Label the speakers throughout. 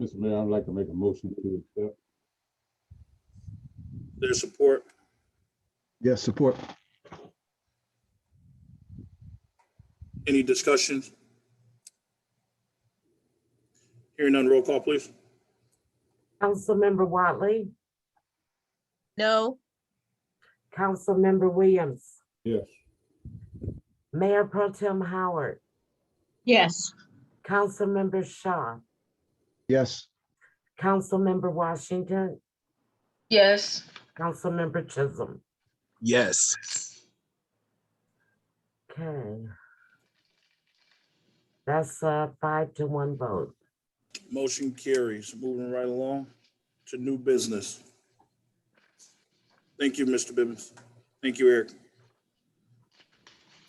Speaker 1: Mr. Mayor, I'd like to make a motion to accept.
Speaker 2: There's support.
Speaker 3: Yes, support.
Speaker 2: Any discussions? Hearing none, roll call, please.
Speaker 4: Councilmember Watley,
Speaker 5: No.
Speaker 4: Councilmember Williams,
Speaker 1: Yes.
Speaker 4: Mayor Pro Tem Howard,
Speaker 5: Yes.
Speaker 4: Councilmember Shaw,
Speaker 3: Yes,
Speaker 4: Councilmember Washington,
Speaker 5: Yes.
Speaker 4: Councilmember Chisholm.
Speaker 6: Yes.
Speaker 4: Okay. That's a five to one vote.
Speaker 2: Motion carries. Moving right along to new business. Thank you, Mr. Bibbins. Thank you, Eric.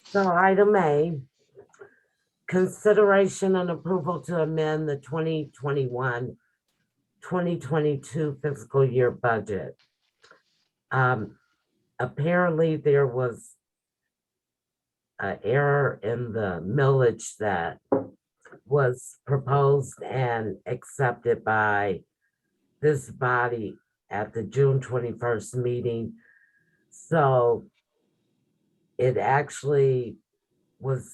Speaker 4: So item A, consideration and approval to amend the 2021, 2022 fiscal year budget. Um, Apparently, there was an error in the millage that was proposed and accepted by this body at the June 21st meeting. So it actually was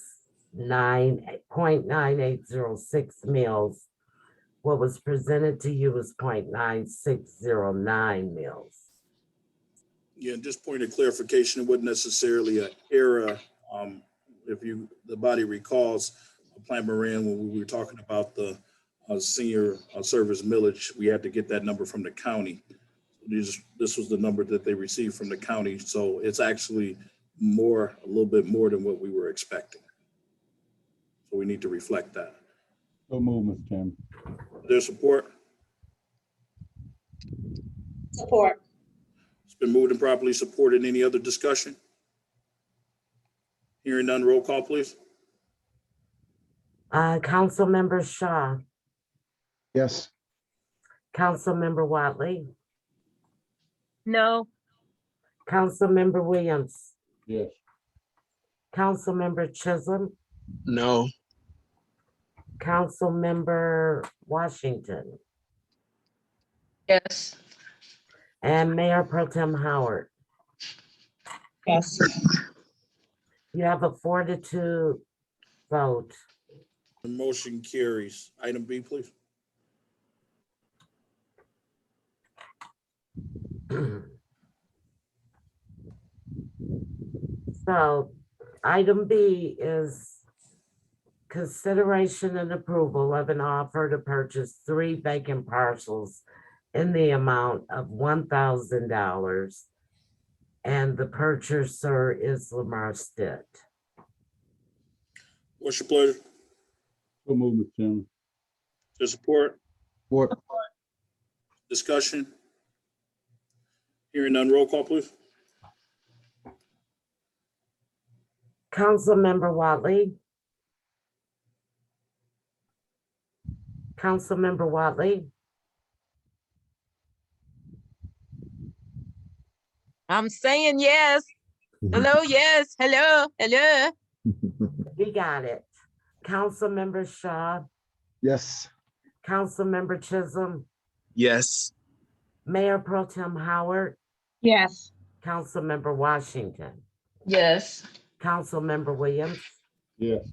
Speaker 4: nine eh, point nine eight zero six mils. What was presented to you was point nine six zero nine mils.
Speaker 2: Yeah, just point of clarification, it wasn't necessarily an error. Um, If you, the body recalls, Plant Moran, when we were talking about the uh, senior uh, service millage, we had to get that number from the county. These, this was the number that they received from the county, so it's actually more, a little bit more than what we were expecting. So we need to reflect that.
Speaker 1: So move, Mr. Chairman.
Speaker 2: Their support,
Speaker 5: Support.
Speaker 2: it's been moved and properly supported. Any other discussion? Hearing none, roll call, please.
Speaker 4: Uh, Councilmember Shaw,
Speaker 3: yes,
Speaker 4: Councilmember Watley,
Speaker 5: No.
Speaker 4: Councilmember Williams,
Speaker 1: Yes.
Speaker 4: Councilmember Chisholm,
Speaker 6: No.
Speaker 4: Councilmember Washington,
Speaker 5: Yes.
Speaker 4: and Mayor Pro Tem Howard.
Speaker 5: Yes.
Speaker 4: You have a four to two vote.
Speaker 2: The motion carries. Item B, please.
Speaker 4: So item B is consideration and approval of an offer to purchase three vacant parcels in the amount of one thousand dollars. And the purchaser is Lamar Stitt.
Speaker 2: What's your pleasure?
Speaker 1: So move, Mr. Chairman.
Speaker 2: Your support,
Speaker 3: support.
Speaker 2: discussion? Hearing none, roll call, please.
Speaker 4: Councilmember Watley. Councilmember Watley,
Speaker 5: I'm saying yes. Hello, yes. Hello, hello.
Speaker 4: we got it. Councilmember Shaw,
Speaker 3: Yes,
Speaker 4: Councilmember Chisholm,
Speaker 6: Yes.
Speaker 4: Mayor Pro Tem Howard,
Speaker 5: Yes.
Speaker 4: Councilmember Washington.
Speaker 5: Yes.
Speaker 4: Councilmember Williams,
Speaker 1: Yes.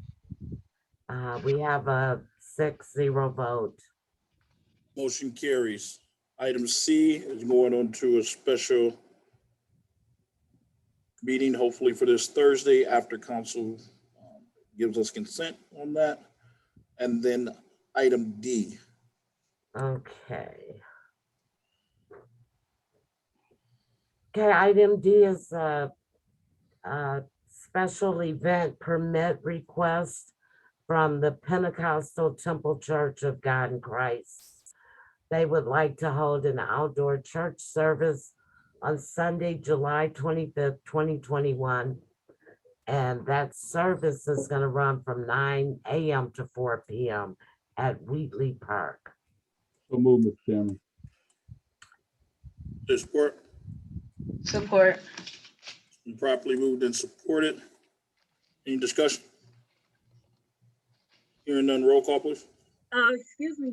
Speaker 4: uh, we have a six zero vote.
Speaker 2: Motion carries. Item C is going on to a special meeting, hopefully for this Thursday after council um, gives us consent on that. And then item D,
Speaker 4: Okay. Okay, item D is a, a special event permit request from the Pentecostal Temple Church of God in Christ. They would like to hold an outdoor church service on Sunday, July twenty-fifth, twenty twenty-one. And that service is gonna run from nine AM to four PM at Wheatley Park.
Speaker 1: So move, Mr. Chairman.
Speaker 2: their support,
Speaker 5: Support.
Speaker 2: properly moved and supported. Any discussion? Hearing none, roll call, please.
Speaker 5: Uh, excuse me,